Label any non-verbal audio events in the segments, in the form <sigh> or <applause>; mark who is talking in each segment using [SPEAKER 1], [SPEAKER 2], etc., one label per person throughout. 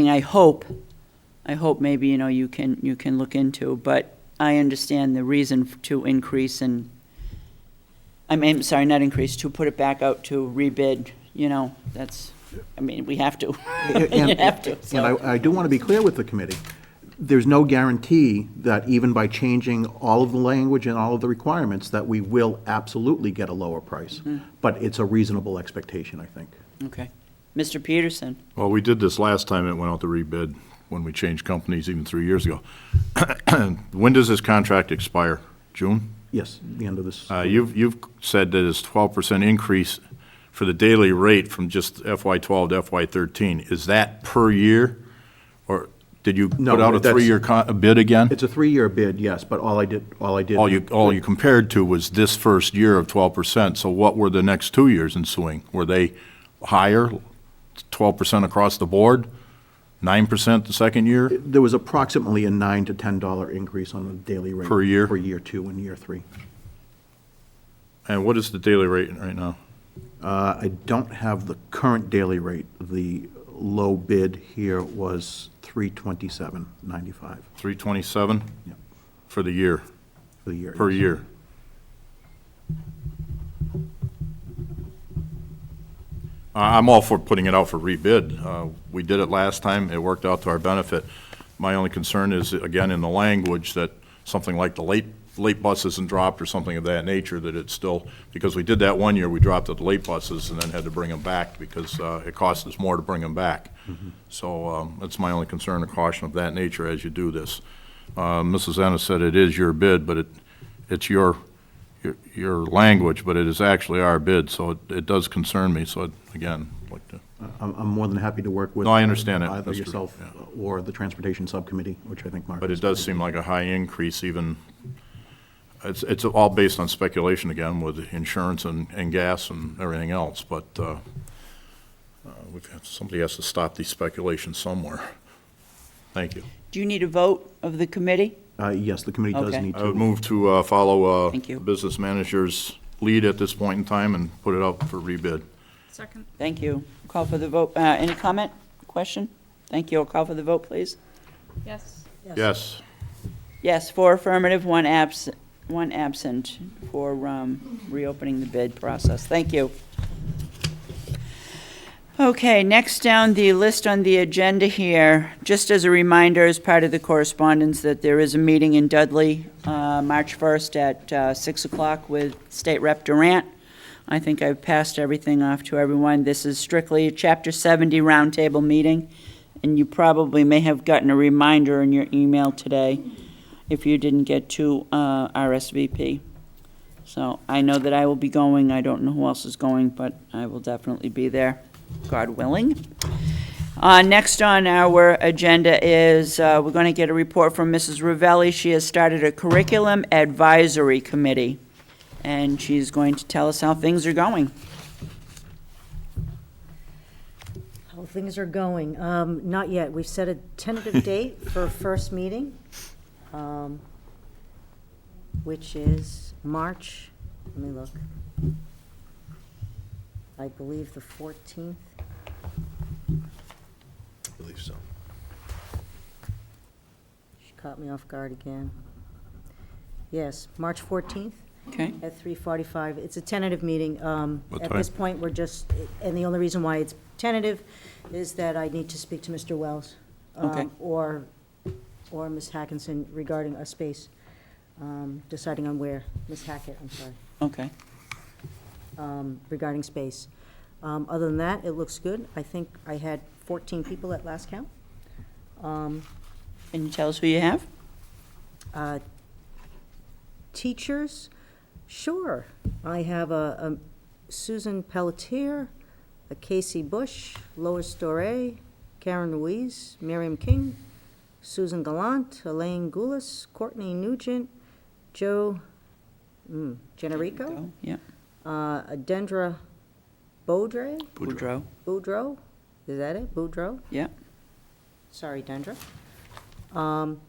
[SPEAKER 1] thing I hope, I hope maybe, you know, you can, you can look into, but I understand the reason to increase and, I mean, sorry, not increase, to put it back out to rebid, you know, that's, I mean, we have to. <laughs> You
[SPEAKER 2] And-
[SPEAKER 1] have to,
[SPEAKER 2] And
[SPEAKER 1] so.
[SPEAKER 2] I, I do want to be clear with the committee, there's no guarantee that even by changing all of the language and all of the requirements, that we will absolutely get a lower price.
[SPEAKER 1] Mm-hmm.
[SPEAKER 2] But it's a reasonable expectation, I think.
[SPEAKER 1] Okay. Mr. Peterson,
[SPEAKER 3] Well, we did this last time it went out to rebid, when we changed companies even three years ago. <coughs> When does this contract expire? June?
[SPEAKER 2] Yes, the end of this,
[SPEAKER 3] Uh, You've, you've said that it's 12% increase for the daily rate from just FY12 to FY13. Is that per year? Or did you
[SPEAKER 2] No,
[SPEAKER 3] put out a
[SPEAKER 2] that's-
[SPEAKER 3] three-year con- bid again?
[SPEAKER 2] it's a three-year bid, yes, but all I did, all I did.
[SPEAKER 3] All you, oh. all you compared to was this first year of 12%, so what were the next two years ensuing? Were they higher, 12% across the board, 9% the second year?
[SPEAKER 2] There was approximately a nine to ten dollar increase on the daily rate.
[SPEAKER 3] Per year?
[SPEAKER 2] For year two and year three.
[SPEAKER 3] And what is the daily rate right now?
[SPEAKER 2] Uh, I don't have the current daily rate, the low bid here was three twenty-seven ninety-five
[SPEAKER 3] 327
[SPEAKER 2] Yep.
[SPEAKER 3] for the year,
[SPEAKER 2] for the year.
[SPEAKER 3] per year. I- I'm all for putting it out for rebid. Uh, We did it last time, it worked out to our benefit. My only concern is, again, in the language, that something like the late, late bus isn't dropped or something of that nature, that it's still, because we did that one year, we dropped the late buses and then had to bring them back because uh, it cost us more to bring them back. So um, that's my only concern and caution of that nature as you do this. Uh, Mrs. Ennis said it is your bid, but it, it's your, your- your language, but it is actually our bid, so it- it does concern me, so I'd, again, like to,
[SPEAKER 2] I'm, I'm more than happy to work with.
[SPEAKER 3] No, I understand that,
[SPEAKER 2] Either
[SPEAKER 3] Mr.
[SPEAKER 2] yourself
[SPEAKER 3] Yeah.
[SPEAKER 2] or the Transportation Subcommittee, which I think Mark.
[SPEAKER 3] but it does seem like a high increase even, it's, it's all based on speculation again with insurance and, and gas and everything else, but uh, uh, we've, somebody has to stop these speculations somewhere. Thank you.
[SPEAKER 1] do you need a vote of the committee?
[SPEAKER 2] Uh, yes, the committee does
[SPEAKER 1] Okay.
[SPEAKER 2] need
[SPEAKER 3] I would
[SPEAKER 2] to.
[SPEAKER 3] move to uh, follow uh,
[SPEAKER 1] Thank you.
[SPEAKER 3] business manager's lead at this point in time and put it out for rebid.
[SPEAKER 4] Second.
[SPEAKER 1] Thank you. Call for the vote. Uh, any comment, question? Thank you. I'll call for the vote, please.
[SPEAKER 4] Yes.
[SPEAKER 3] Yes,
[SPEAKER 1] Yes, four affirmative, one abs, one absent for um, reopening the bid process. Thank you. Okay, next down the list on the agenda here, just as a reminder, as part of the correspondence, that there is a meeting in Dudley, uh, March 1st at uh, 6 o'clock with State Rep Durant. I think I've passed everything off to everyone. This is strictly a Chapter 70 roundtable meeting, and you probably may have gotten a reminder in your email today if you didn't get to uh, RSVP. So I know that I will be going. I don't know who else is going, but I will definitely be there, God willing. Uh, Next on our agenda is, uh, we're going to get a report from Mrs. Ravelli. She has started a curriculum advisory committee, and she's going to tell us how things are going.
[SPEAKER 5] How things are going. Um, Not yet. We've set a tentative date for first meeting, um, which is March, let me look. I believe the 14th.
[SPEAKER 6] believe so.
[SPEAKER 5] She caught me off guard again. Yes, March 14th
[SPEAKER 1] Okay?
[SPEAKER 5] at 3:45. It's a tentative meeting. Um,
[SPEAKER 3] What
[SPEAKER 5] At this
[SPEAKER 3] time?
[SPEAKER 5] point, we're just, and the only reason why it's tentative is that I need to speak to Mr. Wells. um,
[SPEAKER 1] Okay.
[SPEAKER 5] Or, or Ms. Hackinson regarding a space, um, deciding on where, Ms. Hackett, I'm sorry,
[SPEAKER 1] Okay.
[SPEAKER 5] um, regarding space. Um, Other than that, it looks good. I think I had 14 people at last count.
[SPEAKER 1] Can you tell us who you have?
[SPEAKER 5] Uh, Teachers, sure. I have a a Susan Pelletier, a Casey Bush, Lois Doré, Karen Ruiz, Miriam King, Susan Gallant, Elaine Goulis, Courtney Nugent, Joe mm, Generico,
[SPEAKER 1] Go. Yeah,
[SPEAKER 5] uh, Dendra Bodre,
[SPEAKER 1] Boudreau.
[SPEAKER 5] Boudreau, is that it? Boudreau?
[SPEAKER 1] Yeah.
[SPEAKER 5] Sorry, Dendra. Um,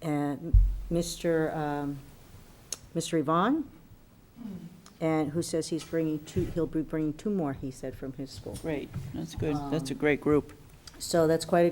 [SPEAKER 5] And Mr. um, Mr. Yvonne, and who says he's bringing two, he'll be bringing two more, he said, from his school.
[SPEAKER 1] Great. That's good. That's a great group.
[SPEAKER 5] So that's quite a